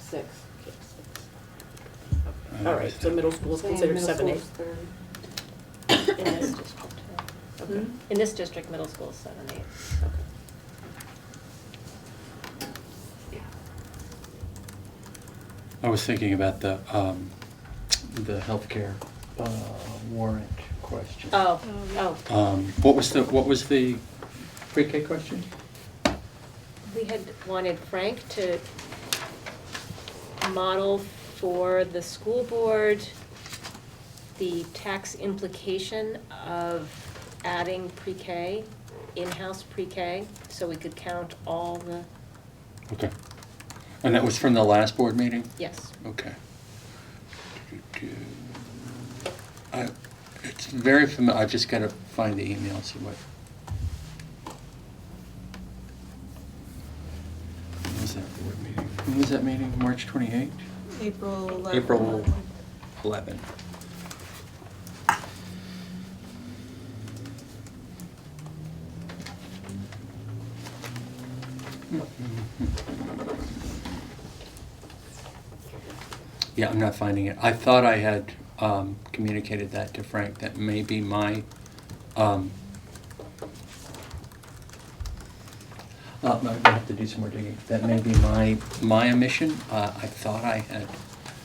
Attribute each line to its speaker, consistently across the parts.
Speaker 1: six.
Speaker 2: All right, so middle school is
Speaker 1: Same,
Speaker 2: considered
Speaker 1: middle
Speaker 2: seven, eight.
Speaker 1: school's third.
Speaker 3: In this district,
Speaker 2: Okay.
Speaker 1: Hmm?
Speaker 3: in this district, middle school is seven, eight.
Speaker 1: Yeah.
Speaker 4: I was thinking about the, um, the healthcare, uh, warrant question.
Speaker 3: Oh,
Speaker 5: Oh, yeah.
Speaker 3: oh,
Speaker 4: Um, what was the, what was the pre-K question?
Speaker 3: we had wanted Frank to model for the school board the tax implication of adding pre-K, in-house pre-K, so we could count all the,
Speaker 4: Okay. And that was from the last board meeting?
Speaker 3: yes.
Speaker 4: Okay. I, it's very familiar, I've just gotta find the email and see what. When was that board meeting? When was that meeting? March twenty-eighth?
Speaker 5: April eleventh.
Speaker 4: April eleven. Yeah, I'm not finding it. I thought I had um, communicated that to Frank. That may be my, um, uh, I have to do some more digging. That may be my, my omission. Uh, I thought I had.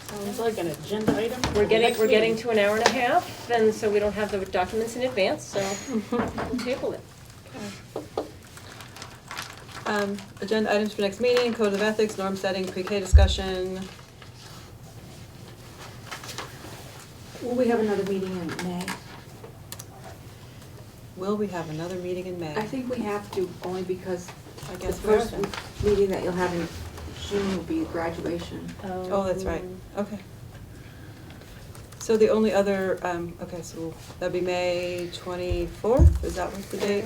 Speaker 2: Sounds like an agenda item. for
Speaker 3: We're
Speaker 2: the
Speaker 3: getting,
Speaker 2: next
Speaker 3: we're getting
Speaker 2: meeting.
Speaker 3: to an hour and a half, and so we don't have the documents in advance, so we'll table it.
Speaker 5: Um, agenda items for next meeting, code of ethics, norm setting, pre-K discussion.
Speaker 1: Will we have another meeting in May?
Speaker 5: Will we have another meeting in May?
Speaker 1: I think we have to, only because
Speaker 5: I
Speaker 1: the
Speaker 5: guess we're
Speaker 1: first
Speaker 5: open.
Speaker 1: meeting that you'll have in June will be graduation.
Speaker 5: Oh, that's right, okay. So the only other, um, okay, so that'd be May twenty-fourth, is that what's the date?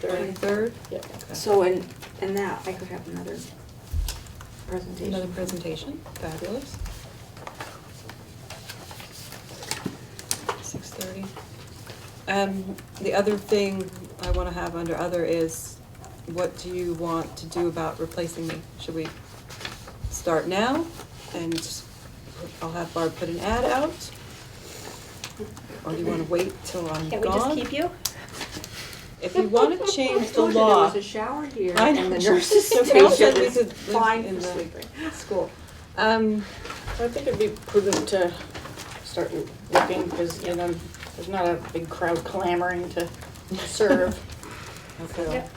Speaker 2: Third.
Speaker 5: Third?
Speaker 2: Yeah.
Speaker 1: So in, in that, I could have another presentation.
Speaker 5: Another presentation, fabulous. Six thirty. Um, the other thing I wanna have under other is, what do you want to do about replacing me? Should we start now? And I'll have Barb put an ad out? Or do you wanna wait till I'm
Speaker 3: Can't we just
Speaker 5: gone?
Speaker 3: keep you?
Speaker 5: If you wanna
Speaker 1: I
Speaker 5: change the
Speaker 1: told you there
Speaker 5: law
Speaker 1: was a shower here
Speaker 5: I
Speaker 1: and
Speaker 5: know.
Speaker 1: the nurses
Speaker 5: So
Speaker 1: station
Speaker 5: Carol said we
Speaker 1: is
Speaker 5: could live in
Speaker 1: fine for
Speaker 5: the- Oh,
Speaker 1: sleeping.
Speaker 5: at school, um,
Speaker 2: I think it'd be prudent to start looking, because, you know, there's not a big crowd clamoring to serve.
Speaker 5: okay.
Speaker 3: Yep.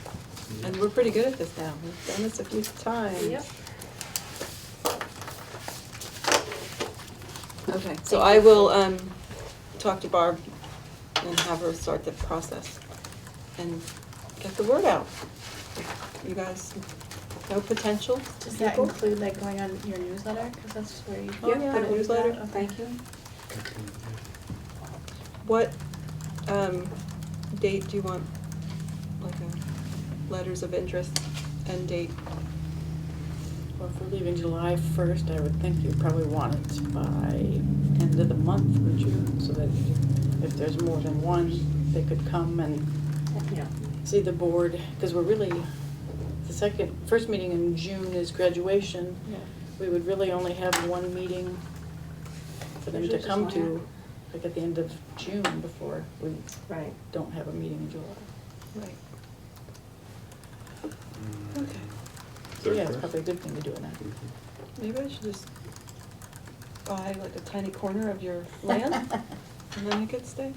Speaker 5: And we're pretty good at this now. We've done this a few times.
Speaker 3: Yep.
Speaker 5: Okay, so
Speaker 3: Thank
Speaker 5: I
Speaker 3: you.
Speaker 5: will, um, talk to Barb and have her start the process and get the word out. You guys know potential
Speaker 6: Does that
Speaker 5: people?
Speaker 6: include like going on your newsletter? Because that's where you.
Speaker 5: Oh, yeah,
Speaker 1: I will do
Speaker 5: newsletter.
Speaker 1: that. Thank you.
Speaker 5: What, um, date do you want, like, a letters of interest end date?
Speaker 2: Well, if we're leaving July first, I would think you probably want it by end of the month, would you? So that if there's more than one, they could come and
Speaker 3: Yeah.
Speaker 2: see the board, because we're really, the second, first meeting in June is graduation.
Speaker 5: Yeah.
Speaker 2: We would really only have one meeting for them to
Speaker 1: Usually
Speaker 2: come
Speaker 1: just one.
Speaker 2: to, like at the end of June before we
Speaker 3: Right.
Speaker 2: don't have a meeting in July.
Speaker 5: Right.
Speaker 2: So yeah, it's probably a good thing to do it now.
Speaker 5: Maybe I should just buy like a tiny corner of your land and then I could stay.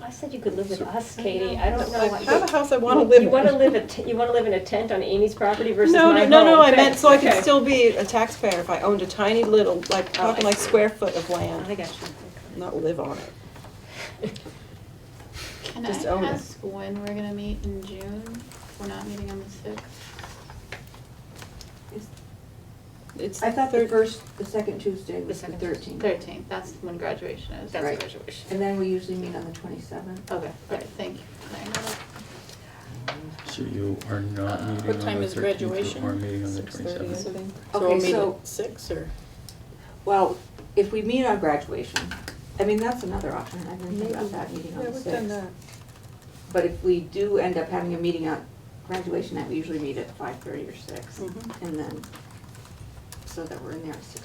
Speaker 3: I said you could live with
Speaker 4: So-
Speaker 3: us, Katie. I don't know.
Speaker 5: I have a
Speaker 3: what-
Speaker 5: house I wanna live in.
Speaker 3: You want to live a t- you want to live in a tent on Amy's property versus my
Speaker 5: No,
Speaker 3: home?
Speaker 5: no, no, no, I meant,
Speaker 3: Thanks.
Speaker 5: so I could
Speaker 3: Okay.
Speaker 5: still be a taxpayer if I owned a tiny little, like,
Speaker 3: Oh, I
Speaker 5: talking like
Speaker 3: see.
Speaker 5: square foot of
Speaker 3: I
Speaker 5: land,
Speaker 3: got you.
Speaker 5: not live on it.
Speaker 6: Can
Speaker 5: Just
Speaker 6: I
Speaker 5: own it.
Speaker 6: ask when we're gonna meet in June? If We're not meeting on the sixth.
Speaker 1: Is-
Speaker 5: It's
Speaker 1: I thought the
Speaker 5: third-
Speaker 1: first, the second Tuesday
Speaker 3: The
Speaker 1: was the
Speaker 3: second
Speaker 1: thirteenth.
Speaker 6: Thirteenth, that's when graduation is.
Speaker 3: That's
Speaker 1: Right.
Speaker 3: graduation.
Speaker 1: And then we usually meet on the twenty-seventh.
Speaker 3: Okay,
Speaker 6: All
Speaker 3: right.
Speaker 6: right, thank you. for clearing that up.
Speaker 4: So you are not
Speaker 6: Uh,
Speaker 4: meeting
Speaker 2: what
Speaker 4: on
Speaker 2: time
Speaker 4: the
Speaker 2: is
Speaker 4: 13th, you
Speaker 2: graduation?
Speaker 4: are meeting on the
Speaker 5: 6:30 or
Speaker 4: 27th.
Speaker 5: something.
Speaker 2: So we'll
Speaker 1: Okay,
Speaker 2: meet
Speaker 1: so-
Speaker 2: at six or?
Speaker 1: Well, if we meet on graduation, I mean, that's another option, I didn't think about
Speaker 5: Maybe.
Speaker 1: that meeting
Speaker 5: Yeah,
Speaker 1: on the
Speaker 5: we've
Speaker 1: sixth.
Speaker 5: done that.
Speaker 1: But if we do end up having a meeting on
Speaker 5: Mm-hmm.
Speaker 1: graduation, night, we usually meet at five thirty or six,
Speaker 2: Mhm.
Speaker 1: and then, so that we're in there at six